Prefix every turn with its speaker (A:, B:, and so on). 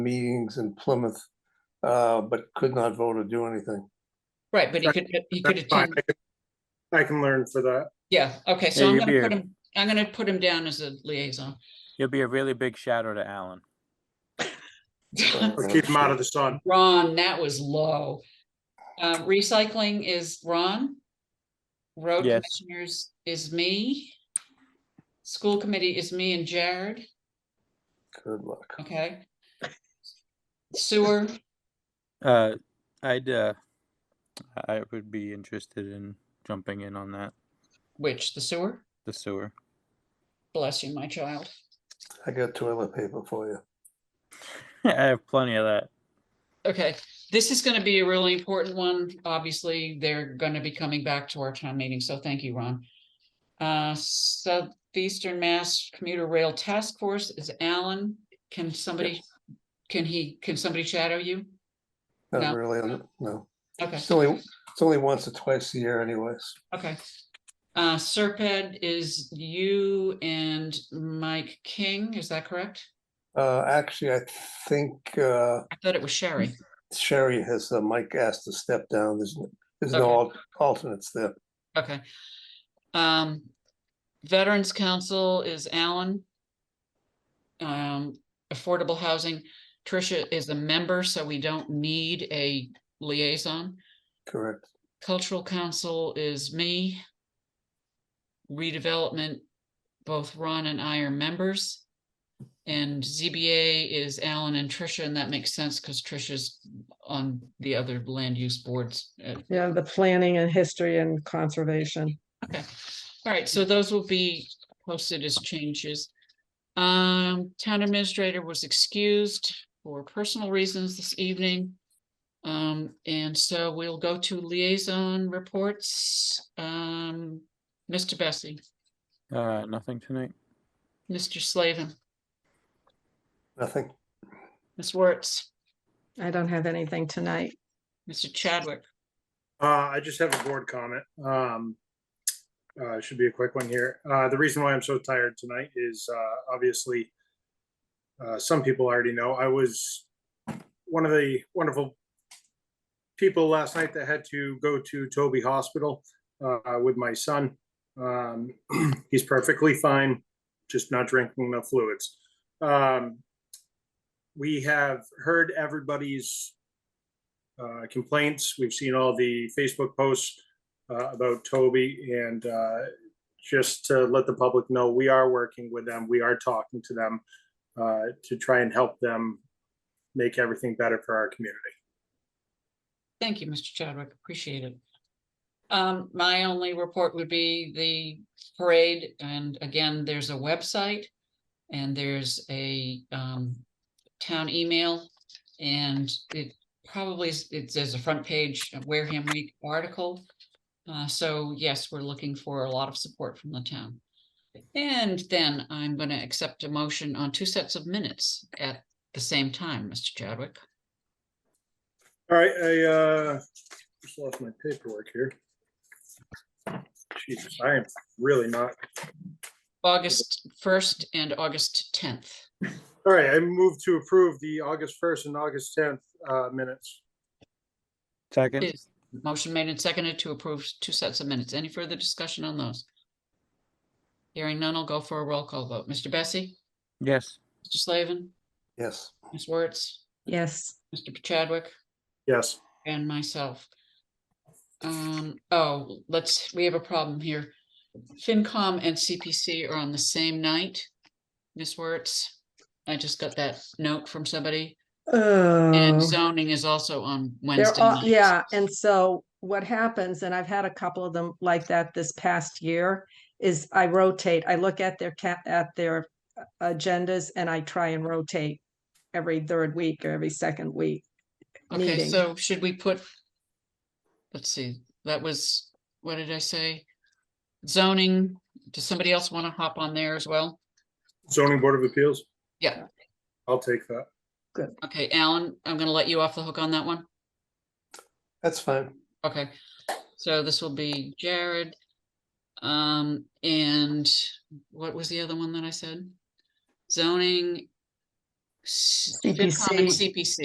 A: meetings in Plymouth, uh, but could not vote or do anything.
B: Right, but he could, uh, he could
C: That's fine.
B: attend,
C: I can- I can learn for that.
B: yeah, okay,
D: Yeah,
B: so I'm
D: you'll be
B: gonna put
D: a-
B: him, I'm gonna put him down as a liaison.
D: You'll be a really big shadow to Alan.
C: Let's keep him out of the sun.
B: Ron, that was low. Uh, recycling is Ron. Road
D: Yes.
B: commissioners is me. School committee is me and Jared,
A: uh, Good luck.
B: okay? Sewer,
D: Uh, I'd, uh, I would be interested in jumping in on that,
B: which, the sewer?
D: the sewer.
B: Bless you, my child.
A: I got toilet paper for you.
D: I have plenty of that.
B: Okay, this is gonna be a really important one. Obviously, they're gonna be coming back to our town meeting, so thank you, Ron. Uh, Southeastern Mass Commuter Rail Task Force is Alan. Can somebody, can he, can somebody shadow you? No.
A: Not really, I'm- no.
B: Okay,
A: It's only, it's only once or twice a year anyways.
B: okay. Uh, Serped is you and Mike King, is that correct?
A: Uh, actually, I think, uh,
B: I thought it was Sherry.
A: Sherry has, uh, Mike asked to step down. There's, no- there's no
B: Okay.
A: al- alternates there.
B: Okay. Um, Veterans Council is Alan. Um, Affordable Housing, Tricia is a member, so we don't need a liaison.
A: Correct.
B: Cultural Council is me. Redevelopment, both Ron and I are members. And ZBA is Alan and Tricia, and that makes sense because Tricia's on the other land use boards uh,
E: Yeah, the planning and history and conservation.
B: Okay, all right, so those will be posted as changes. Um, town administrator was excused for personal reasons this evening. Um, and so we'll go to liaison reports. Um, Mr. Bessie,
D: Uh, nothing tonight.
B: Mr. Slavin,
A: Nothing.
B: Ms. Wertz,
E: I don't have anything tonight.
B: Mr. Chadwick.
C: Uh, I just have a board comment. Um, uh, should be a quick one here. Uh, the reason why I'm so tired tonight is, uh, obviously, uh, some people already know, I was one of the wonderful people last night that had to go to Toby Hospital, uh, with my son. Um, he's perfectly fine, just not drinking enough fluids. Um, we have heard everybody's uh, complaints. We've seen all the Facebook posts uh, about Toby and uh, just to let the public know, we are working with them. We are talking to them uh, to try and help them make everything better for our community.
B: Thank you, Mr. Chadwick. Appreciate it. Um, my only report would be the parade, and again, there's a website. And there's a um town email, and it probably is, it says a front page of Wareham Week article. Uh, so yes, we're looking for a lot of support from the town. And then I'm gonna accept a motion on two sets of minutes at the same time, Mr. Chadwick.
C: All right, I uh, just lost my paperwork here. Jesus, I am really not.
B: August first and August tenth.
C: All right, I move to approve the August 1st and August 10th uh, minutes.
D: Second,
B: Is- Motion made and seconded to approve two sets of minutes. Any further discussion on those? Hearing none, I'll go for a roll call vote. Mr. Bessie?
D: yes.
B: Mr. Slavin?
A: Yes.
B: Ms. Wertz?
E: Yes,
B: Mr. Chadwick?
C: Yes,
B: And myself. Um, oh, let's, we have a problem here. FinCom and CPC are on the same night. Ms. Wertz, I just got that note from somebody.
E: oh,
B: And zoning is also on
E: they're
B: Wednesday
E: all,
B: night.
E: yeah, and so what happens, and I've had a couple of them like that this past year, is I rotate, I look at their cap, at their uh, agendas and I try and rotate every third week or every second week.
B: Okay,
E: meeting.
B: so should we put? Let's see, that was, what did I say? Zoning, does somebody else want to hop on there as well?
C: zoning board of appeals.
B: Yeah.
C: I'll take that.
B: Okay, Alan, I'm gonna let you off the hook on that one.
A: That's fine.
B: Okay, so this will be Jared. Um, and what was the other one that I said? Zoning S- FinCom and
E: CPC.
B: CPC.